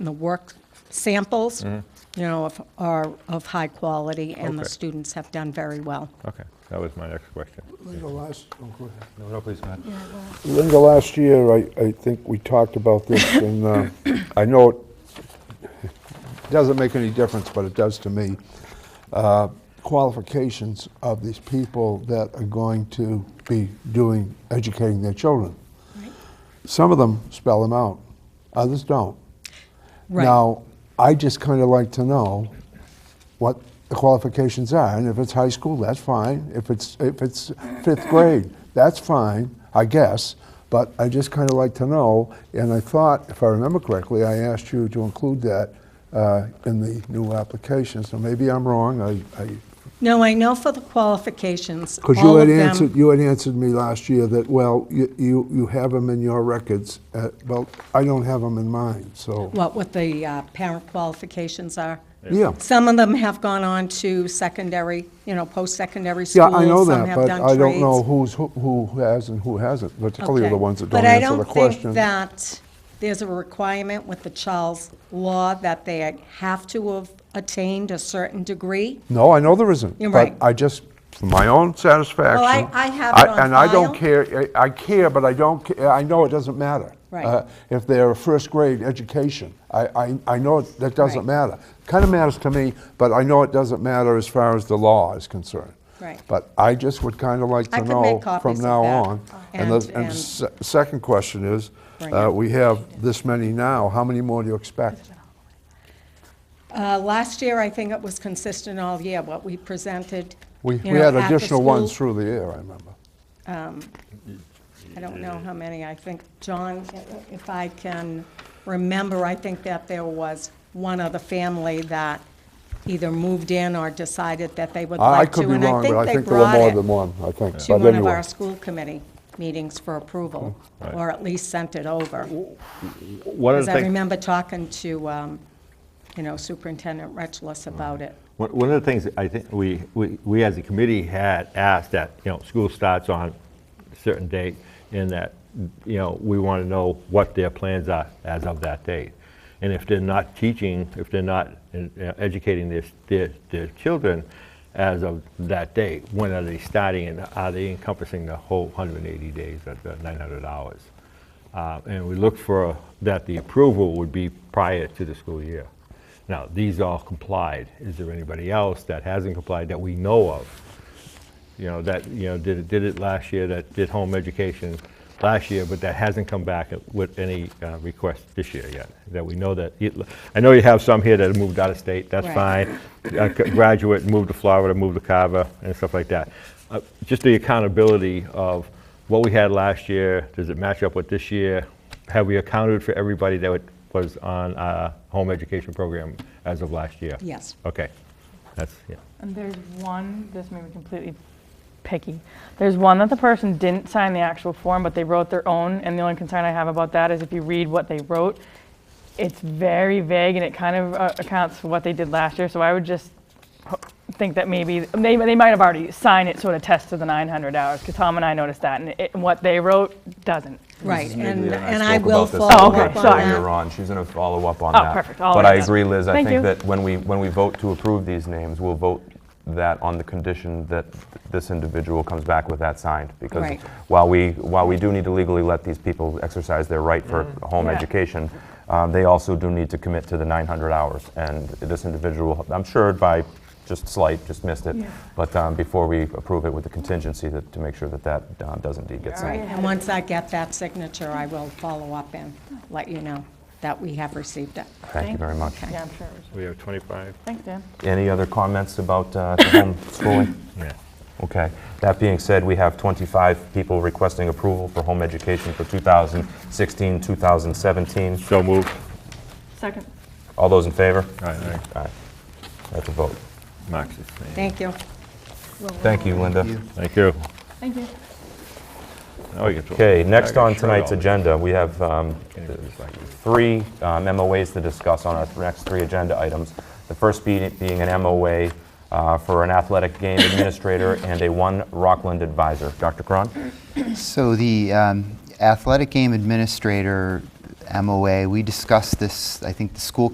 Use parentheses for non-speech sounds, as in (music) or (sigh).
and the work samples, you Mm-hmm. know, of- are of high quality, and the Okay. students have done very well. Okay, that was my next question. Linda last, oh, go ahead. No, no, please, go ahead. Linda, last year, I, I think we talked about (coughs) this, and uh, I know it doesn't make any difference, but it does to me. Uh, Qualifications of these people that are going to be doing, educating their children. Some of them spell them out, others don't. Right. Now, I just kind of like to know what the qualifications are, and if it's high school, that's fine. If it's, if it's fifth grade, that's fine, I guess, but I just kind of like to know, and I thought, if I remember correctly, I asked you to include that uh, in the new application, so maybe I'm wrong, I, I No, I know for the qualifications, because you all of had them- answered, you had answered me last year that, well, you, you you have them in your records. uh, Well, I don't have them in mine, so, What, what the uh, parent qualifications are? yeah. Some of them have gone on to secondary, you know, post-secondary Yeah, schools. I know some that, have but done I don't trades. know who's, who- who has and who hasn't, particularly the Okay. ones that don't answer the question. But I don't think that there's a requirement with the Charles law that they have to have attained a certain degree. No, I know there isn't. You're right. But I just, for my own satisfaction. I have it I- on And I don't file. care, I I care, but I don't, ca- I know it doesn't matter. Right. uh, If they're a first-grade education, I, I, I know it- that doesn't Right. matter. Kind of matters to me, but I know it doesn't matter as far as the law is concerned. Right. But I just would kind of like I to could make know copies from of now that. on. And And- the, and and- se- second question is, Bring uh, it. we have this many now, how many more do you expect? Uh, Last year, I think it was consistent all year, what we presented. We, you we know, at had the additional ones school. through the year, I remember. I don't know how many, I think, John, if I can remember, I think that there was one other family that either moved in or decided that they would I I like to. could be and wrong, but I they think there were brought more it. than one, I think. to But one of anyway, our school committee meetings for approval, or at least sent it over. One of Because the I things, remember talking to, um, you know, Superintendent Retchless about it. one one of the things I think we, we we as a committee had asked that, you know, school starts on a certain date, and that, you know, we want to know what their plans are as of that date. And if they're not teaching, if they're not uh, educating their, their, their children as of that date, when are they starting, and are they encompassing the whole 180 days at the 900 hours? Uh, And we look for that the approval would be prior to the school year. Now, these all complied. Is there anybody else that hasn't complied that we know of? You know, that, you know, did it, did it last year, that did home education last year, but that hasn't come back with any uh, request this year yet, that we know that. it- I know you have some here that have moved out of state, that's Right. fine. A c- Graduate, moved to Florida, moved to Carver, and stuff like that. Uh, Just the accountability of what we had last year, does it match up with this year? Have we accounted for everybody that wa- was on a home education program as of last year? Yes. Okay, that's, yeah. And there's one, this may be completely picky. There's one that the person didn't sign the actual form, but they wrote their own. And the only concern I have about that is if you read what they wrote, it's very vague and it kind of uh, accounts for what they did last year. So I would just ho- think that maybe, they, they might have already signed it sort of test to the 900 hours because Tom and I noticed that. And it, what they wrote doesn't. Right, and, Julia and I spoke will about this follow earlier- up on sorry. Earlier that. on, she's going to follow up on Oh, that. perfect. I'll But write I that. agree, Liz, I Thank you. think that when we, when we vote to approve these names, we'll vote that on the condition that this individual comes back with that signed. Because Right. while we, while we do need to legally let these people exercise their right for home Yeah. education, um, they also do need to commit to the 900 hours. And this individual, I'm sure by just slight, just missed it. Yeah. But um, before we approve it with the contingency that, to make sure that that uh, does indeed get All right, signed. and once I get that signature, I will follow up and let you know that we have received it. Thank you very much. Yeah, I'm sure. it was- We have 25? Thanks, Dan. Any other comments about uh, (coughs) homeschooling? Yeah. Okay. That being said, we have 25 people requesting approval for home education for 2016, 2017. So moved. Second. All those in favor? All right, all right. Aye. That's a vote. Mark's abstaining. Thank you. Thank you, Linda. Thank you. Thank you. Now we can throw- Okay, I next got on shirt tonight's all the- agenda, we have um, Can't even recycle. three um, MOAs to discuss on our th- next three agenda items. The first be- being an MOA uh, for an athletic (coughs) game administrator and a one Rockland advisor. Dr. Cron? So the um, athletic game administrator MOA. We discussed this, I think the school